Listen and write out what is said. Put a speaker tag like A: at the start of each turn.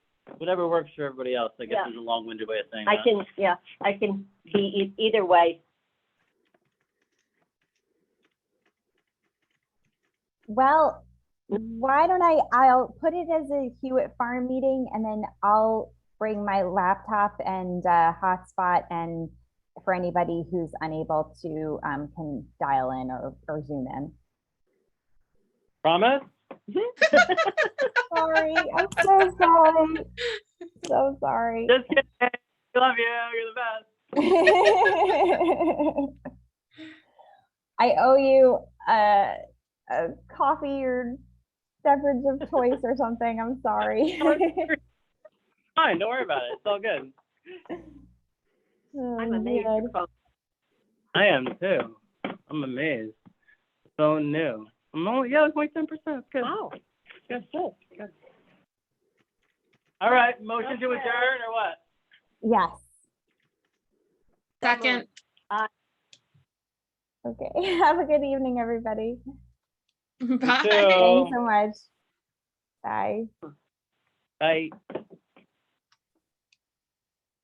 A: whatever works for everybody else, I guess
B: Yeah.
A: is a long-winded way of saying
B: I
A: that.
B: can, yeah, I can be e- either way.
C: Well, why don't I, I'll put it as a Hewitt Farm meeting and then I'll bring my laptop and uh, hotspot and for anybody who's unable to, um, can dial in or, or zoom in.
A: Promise?
C: Sorry, I'm so sorry. So sorry.
A: Just kidding. We Love you. You're the best.
C: I owe you a, a coffee or beverage of choice or something. I'm sorry.
A: Fine, don't worry about it. It's all good.
B: I'm amazed
C: Oh,
B: you're close.
A: I am too. I'm amazed. So new. I'm only, yeah, it's only ten percent. It's good.
B: Wow.
A: Good, good, good. All right, motion to adjourn or what?
C: Yes.
D: Second,
C: Okay. Have a good evening, everybody.
D: bye.
A: Two.
C: Thanks so much. Bye.
A: Bye.